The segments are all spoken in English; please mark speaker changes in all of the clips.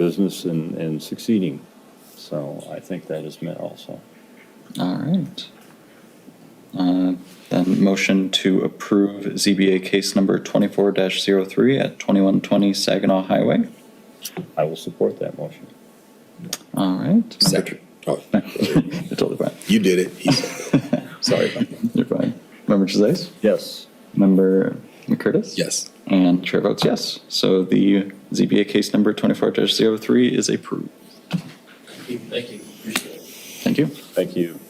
Speaker 1: business and, and succeeding. So I think that is met also.
Speaker 2: All right. Uh, Then motion to approve ZBA case number 24-03 at 2120 Saginaw Highway.
Speaker 1: I will support that motion.
Speaker 2: All right.
Speaker 3: Second. Oh,
Speaker 2: You're totally fine.
Speaker 3: you did it. He said it. Sorry about that.
Speaker 2: You're fine. Member Chazais?
Speaker 1: Yes.
Speaker 2: Member McCurtis?
Speaker 3: Yes.
Speaker 2: And chair votes yes. So the ZBA case number 24-03 is approved.
Speaker 4: Thank you, appreciate it.
Speaker 2: Thank you.
Speaker 1: Thank you.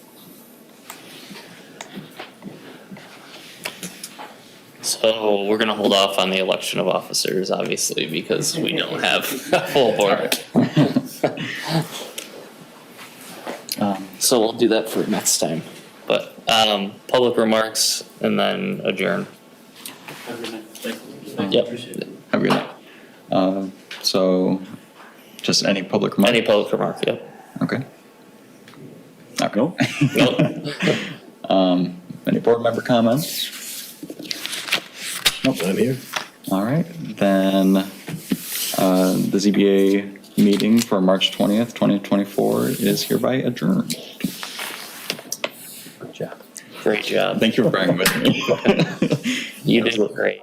Speaker 4: So we're gonna hold off on the election of officers, obviously, because we don't have a full board.
Speaker 2: Um,
Speaker 4: So we'll do that for next time. But, um, public remarks and then adjourn.
Speaker 5: Have a good night. Thank you. Thank you.
Speaker 4: Yep.
Speaker 5: Appreciate it.
Speaker 2: Have a good night. Um, So just any public remarks?
Speaker 4: Any public remark, yep.
Speaker 2: Okay.
Speaker 1: No?
Speaker 4: Nope.
Speaker 2: Um, Any board member comments?
Speaker 3: I'm here.
Speaker 2: All right, then, uh, the ZBA meeting for March twentieth, twenty twenty-four is hereby adjourned.
Speaker 4: Great job.
Speaker 2: Thank you for bearing with me.
Speaker 4: You did great.